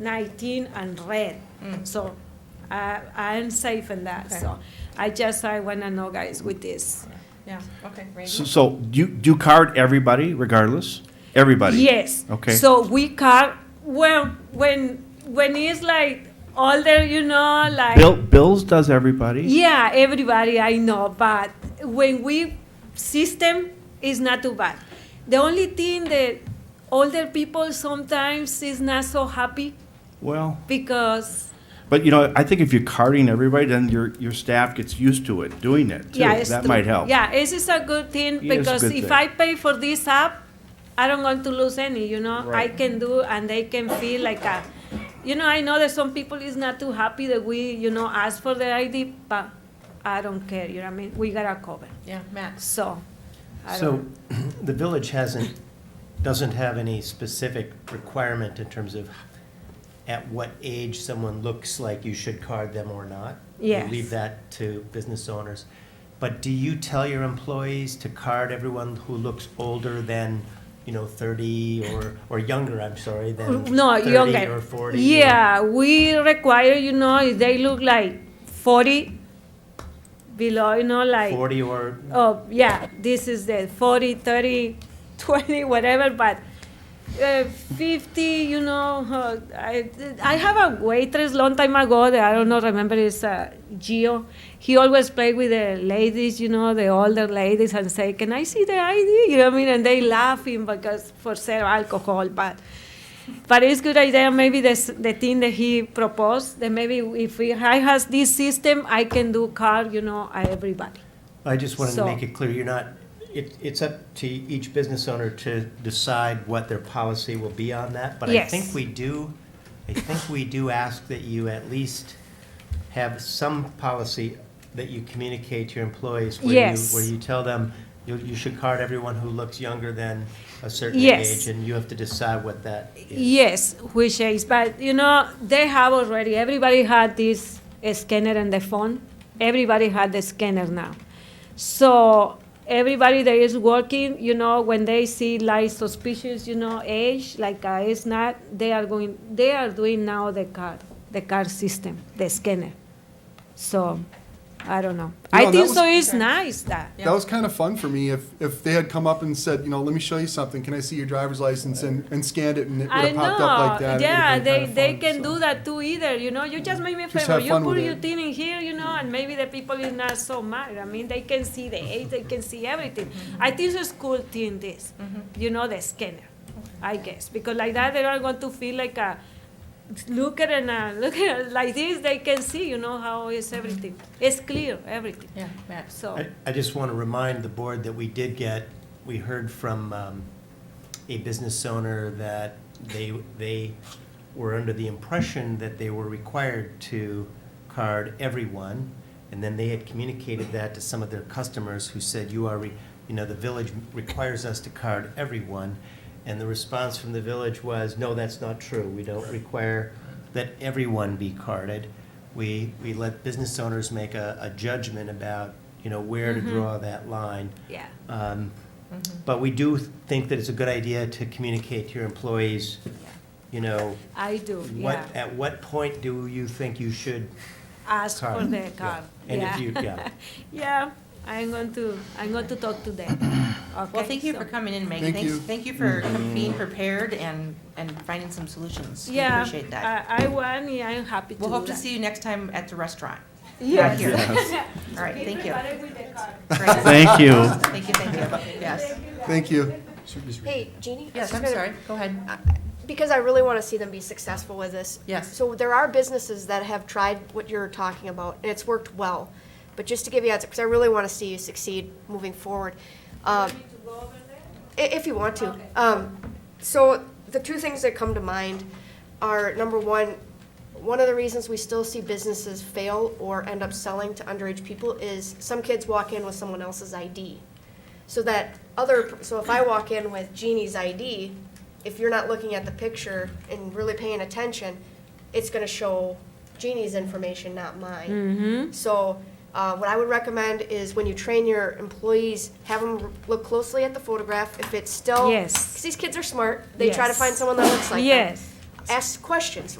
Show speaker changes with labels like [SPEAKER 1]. [SPEAKER 1] 19 and red. So I, I'm safe in that,
[SPEAKER 2] Okay.
[SPEAKER 1] so I just, I wanna know guys with this.
[SPEAKER 2] Yeah, okay,
[SPEAKER 3] So,
[SPEAKER 2] Randy.
[SPEAKER 3] so you, do you card everybody regardless? Everybody?
[SPEAKER 1] Yes.
[SPEAKER 3] Okay.
[SPEAKER 1] So we car, well, when, when it's like older, you know, like.
[SPEAKER 3] Bill, Bills does everybody?
[SPEAKER 1] Yeah, everybody I know, but when we system is not too bad. The only thing that older people sometimes is not so happy
[SPEAKER 3] Well,
[SPEAKER 1] because
[SPEAKER 3] but you know, I think if you're carding everybody, then your, your staff gets used to it, doing it too.
[SPEAKER 1] yeah, it's
[SPEAKER 3] That
[SPEAKER 1] too-
[SPEAKER 3] might help.
[SPEAKER 1] Yeah, this is a good thing
[SPEAKER 3] It is a
[SPEAKER 1] because
[SPEAKER 3] good
[SPEAKER 1] if
[SPEAKER 3] thing.
[SPEAKER 1] I pay for this app, I don't want to lose any. You know, I
[SPEAKER 3] Right.
[SPEAKER 1] can do and they can feel like a. You know, I know that some people is not too happy that we, you know, ask for their ID, but I don't care. You know what I mean? We got a cover,
[SPEAKER 2] Yeah, Max.
[SPEAKER 1] so. I
[SPEAKER 4] So
[SPEAKER 1] don't-
[SPEAKER 4] the village hasn't, doesn't have any specific requirement in terms of at what age someone looks like you should card them or not? We
[SPEAKER 1] Yes.
[SPEAKER 4] Leave that to business owners. But do you tell your employees to card everyone who looks older than, you know, thirty or, or younger, I'm sorry, than
[SPEAKER 1] no
[SPEAKER 4] thirty
[SPEAKER 1] younger
[SPEAKER 4] or forty? or-
[SPEAKER 1] yeah we require you know if they look like 40 below you know like
[SPEAKER 4] Forty or,
[SPEAKER 1] oh yeah this is the 40 30 20 whatever but uh, 50 you know uh, I, I have a waitress long time ago that i don't know remember is uh, gio he always played with the ladies you know the older ladies and say can i see the id you know what i mean and they laughing because for sale alcohol but but it's good idea maybe this, the thing that he proposed that maybe if we, i has this system i can do card you know uh, everybody
[SPEAKER 4] I just wanted to
[SPEAKER 1] So-
[SPEAKER 4] make it clear, you're not, it, it's up to each business owner to decide what their policy will be on that. But I
[SPEAKER 1] Yes.
[SPEAKER 4] think we do, I think we do ask that you at least have some policy that you communicate to your employees. where you-
[SPEAKER 1] Yes.
[SPEAKER 4] Where you tell them, you, you should card everyone who looks younger than a certain
[SPEAKER 1] Yes.
[SPEAKER 4] age. And you have to decide what that is.
[SPEAKER 1] Yes, which is, but you know, they have already, everybody had this scanner and the phone. Everybody had the scanner now. So everybody that is working, you know, when they see like suspicious, you know, age, like uh, it's not, they are going, they are doing now the card, the card system, the scanner. So, I don't know. I
[SPEAKER 5] that
[SPEAKER 1] think
[SPEAKER 5] was-
[SPEAKER 1] so it's nice that.
[SPEAKER 2] Yeah.
[SPEAKER 5] That was kind of fun for me. If if they had come up and said, you know, let me show you something. Can I see your driver's license and, and scanned it and it would
[SPEAKER 1] I
[SPEAKER 5] have popped up like
[SPEAKER 1] know.
[SPEAKER 5] that. it
[SPEAKER 1] yeah,
[SPEAKER 5] would've been
[SPEAKER 1] they
[SPEAKER 5] kinda
[SPEAKER 1] they
[SPEAKER 5] fun,
[SPEAKER 1] can
[SPEAKER 5] so.
[SPEAKER 1] do that too. Either you know, you just make me a
[SPEAKER 5] Just
[SPEAKER 1] favor.
[SPEAKER 5] have
[SPEAKER 1] You
[SPEAKER 5] fun
[SPEAKER 1] put
[SPEAKER 5] with
[SPEAKER 1] your
[SPEAKER 5] it.
[SPEAKER 1] thing in here, you know, and maybe the people is not so mad. I mean, they can see the age, they can see everything. I think it's a cool thing. This, you know, the scanner, I guess, because like that they are going to feel like a look at and a look at like this. They can see, you know, how is everything. It's clear everything.
[SPEAKER 2] Yeah, Max.
[SPEAKER 1] So
[SPEAKER 4] I, I just want to remind the board that we did get, we heard from um, a business owner that they, they were under the impression that they were required to card everyone, and then they had communicated that to some of their customers who said, you are, re- you know, the village requires us to card everyone. And the response from the village was, no, that's not true. We don't require that everyone be carded. We, we let business owners make a, a judgment about, you know, where
[SPEAKER 1] Mm-hmm.
[SPEAKER 4] to draw that line.
[SPEAKER 1] yeah.
[SPEAKER 4] Um,
[SPEAKER 1] Mm-hmm.
[SPEAKER 4] But we do think that it's a good idea to communicate to your employees, you know,
[SPEAKER 1] I do,
[SPEAKER 4] what,
[SPEAKER 1] yeah.
[SPEAKER 4] at what point do you think you should,
[SPEAKER 1] Ask for
[SPEAKER 4] Card,
[SPEAKER 1] the
[SPEAKER 4] yeah.
[SPEAKER 1] card.
[SPEAKER 4] And
[SPEAKER 1] yeah.
[SPEAKER 4] if you- yeah.
[SPEAKER 1] Yeah, I'm going to, I'm going to talk to them.
[SPEAKER 2] Well,
[SPEAKER 1] Okay,
[SPEAKER 2] thank you for
[SPEAKER 1] so-
[SPEAKER 2] coming in, Megan.
[SPEAKER 5] Thank
[SPEAKER 2] Thanks,
[SPEAKER 5] you.
[SPEAKER 2] thank you for being prepared and, and finding some solutions. We
[SPEAKER 1] Yeah,
[SPEAKER 2] appreciate that.
[SPEAKER 1] I, I want, yeah, I'm happy to
[SPEAKER 2] We'll
[SPEAKER 1] do
[SPEAKER 2] hope to
[SPEAKER 1] that.
[SPEAKER 2] see you next time at the restaurant.
[SPEAKER 1] Yes.
[SPEAKER 2] here. All right, thank you.
[SPEAKER 1] Be prepared with the card.
[SPEAKER 2] Great.
[SPEAKER 3] Thank you.
[SPEAKER 2] Thank you, thank you. Yes.
[SPEAKER 5] Thank you.
[SPEAKER 6] Hey, Jeannie? I was
[SPEAKER 2] Yes,
[SPEAKER 6] just
[SPEAKER 2] I'm
[SPEAKER 6] gonna-
[SPEAKER 2] sorry. Go ahead.
[SPEAKER 6] Because I really want to see them be successful with this.
[SPEAKER 2] Yes.
[SPEAKER 6] So there are businesses that have tried what you're talking about, and it's worked well. But just to give you a, because I really want to see you succeed moving forward. Um, I- If you want to. Um, so the two things that come to mind are, number one, one of the reasons we still see businesses fail or end up selling to underage people is some kids walk in with someone else's ID. So that other, so if I walk in with Jeannie's ID, if you're not looking at the picture and really paying attention, it's gonna show Jeannie's information, not mine. So, uh, what I would recommend is when you train your employees, have them look closely at the photograph, if it's still.
[SPEAKER 1] Yes.
[SPEAKER 6] Cause these kids are smart, they try to
[SPEAKER 1] Yes.
[SPEAKER 6] find someone that looks like them.
[SPEAKER 1] Yes.
[SPEAKER 6] Ask questions,